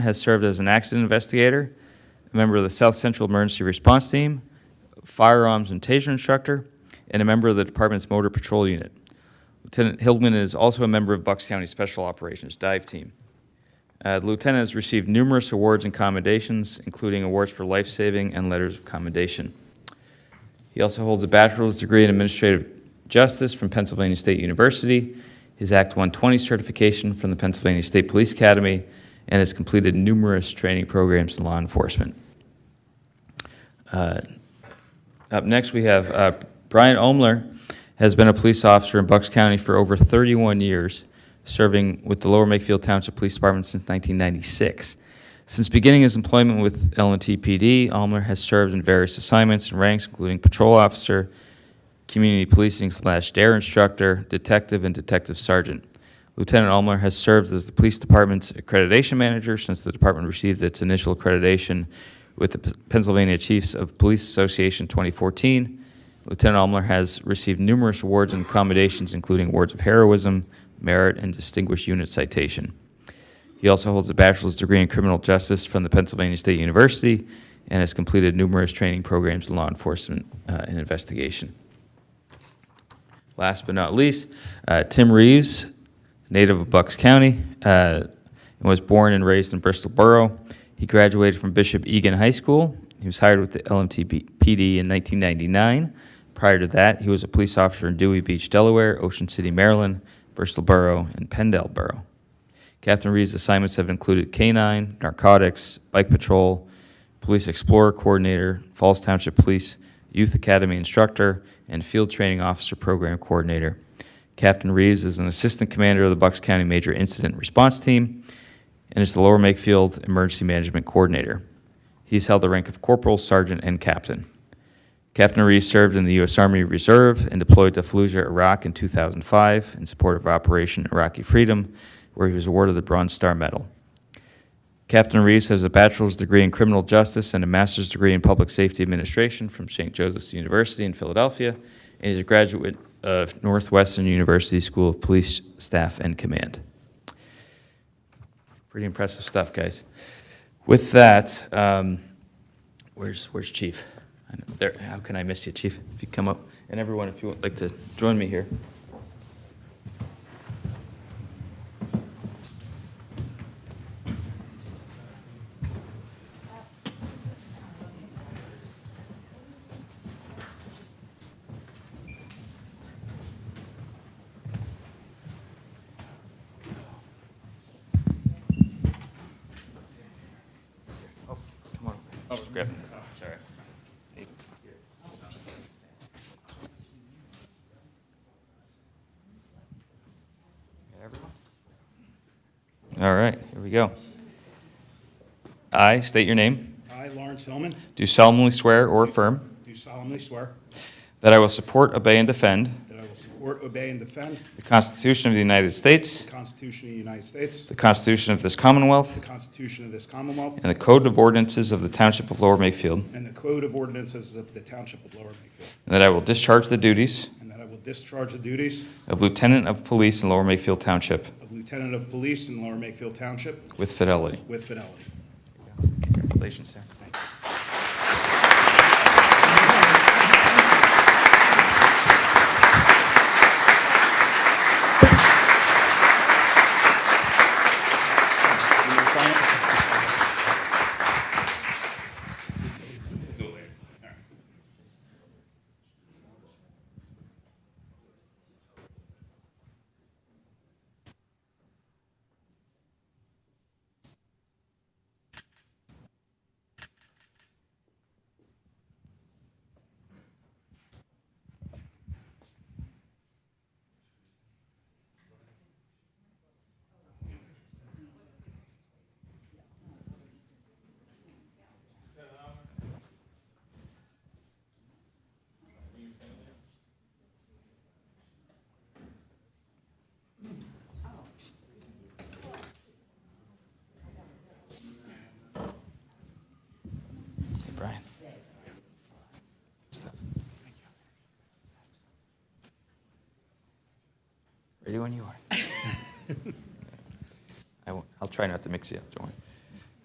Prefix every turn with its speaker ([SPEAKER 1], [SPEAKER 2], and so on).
[SPEAKER 1] has served as an accident investigator, a member of the South Central Emergency Response Team, firearms and taser instructor, and a member of the department's motor patrol unit. Lieutenant Hildman is also a member of Bucks County Special Operations Dive Team. Uh, The Lieutenant has received numerous awards and commendations, including awards for life-saving and letters of commendation. He also holds a bachelor's degree in administrative justice from Pennsylvania State University, his Act 120 certification from the Pennsylvania State Police Academy, and has completed numerous training programs in law enforcement. Uh, Up next, we have uh, Brian Omler, has been a police officer in Bucks County for over 31 years, serving with the Lower Makefield Township Police Department since 1996. Since beginning his employment with LNTPD, Almer has served in various assignments and ranks, including patrol officer, community policing slash dare instructor, detective, and detective sergeant. Lieutenant Almer has served as the police department's accreditation manager since the department received its initial accreditation with the P- Pennsylvania Chiefs of Police Association 2014. Lieutenant Almer has received numerous awards and commendations, including awards of heroism, merit, and distinguished unit citation. He also holds a bachelor's degree in criminal justice from the Pennsylvania State University and has completed numerous training programs in law enforcement uh, and investigation. Last but not least, uh, Tim Reeves, is native of Bucks County, uh, and was born and raised in Bristol Borough. He graduated from Bishop Egan High School. He was hired with the LMTPD in 1999. Prior to that, he was a police officer in Dewey Beach, Delaware, Ocean City, Maryland, Bristol Borough, and Pendle Borough. Captain Reeves' assignments have included K-9, narcotics, bike patrol, police explorer coordinator, Falls Township Police Youth Academy instructor, and field training officer program coordinator. Captain Reeves is an assistant commander of the Bucks County Major Incident Response Team and is the Lower Makefield Emergency Management Coordinator. He's held the rank of corporal, sergeant, and captain. Captain Reese served in the U.S. Army Reserve and deployed to Fallujah, Iraq in 2005 in support of Operation Iraqi Freedom, where he was awarded the Bronze Star Medal. Captain Reese has a bachelor's degree in criminal justice and a master's degree in public safety administration from St. Joseph's University in Philadelphia, and is a graduate of Northwestern University School of Police Staff and Command. Pretty impressive stuff, guys. With that, um, where's, where's Chief? I know, There, how can I miss you, Chief? If you come up, and everyone, if you would like to join me here. Oh, Come on. Just grab it. Sorry. All right, here we go. I state your name,
[SPEAKER 2] I, Lawrence Hillman,
[SPEAKER 1] do solemnly swear or affirm
[SPEAKER 2] do solemnly swear
[SPEAKER 1] that I will support, obey, and defend
[SPEAKER 2] that I will support, obey, and defend
[SPEAKER 1] the Constitution of the United States,
[SPEAKER 2] the Constitution of the United States,
[SPEAKER 1] the Constitution of this Commonwealth,
[SPEAKER 2] the Constitution of this Commonwealth,
[SPEAKER 1] and the Code of Ordinances of the Township of Lower Makefield,
[SPEAKER 2] and the Code of Ordinances of the Township of Lower Makefield,
[SPEAKER 1] and that I will discharge the duties
[SPEAKER 2] and that I will discharge the duties
[SPEAKER 1] of Lieutenant of Police in Lower Makefield Township
[SPEAKER 2] of Lieutenant of Police in Lower Makefield Township
[SPEAKER 1] with fidelity.
[SPEAKER 2] with fidelity.
[SPEAKER 1] Congratulations, sir. Hey, Brian. Stuff. Ready when you are. I won't, I'll try not to mix you up, don't worry.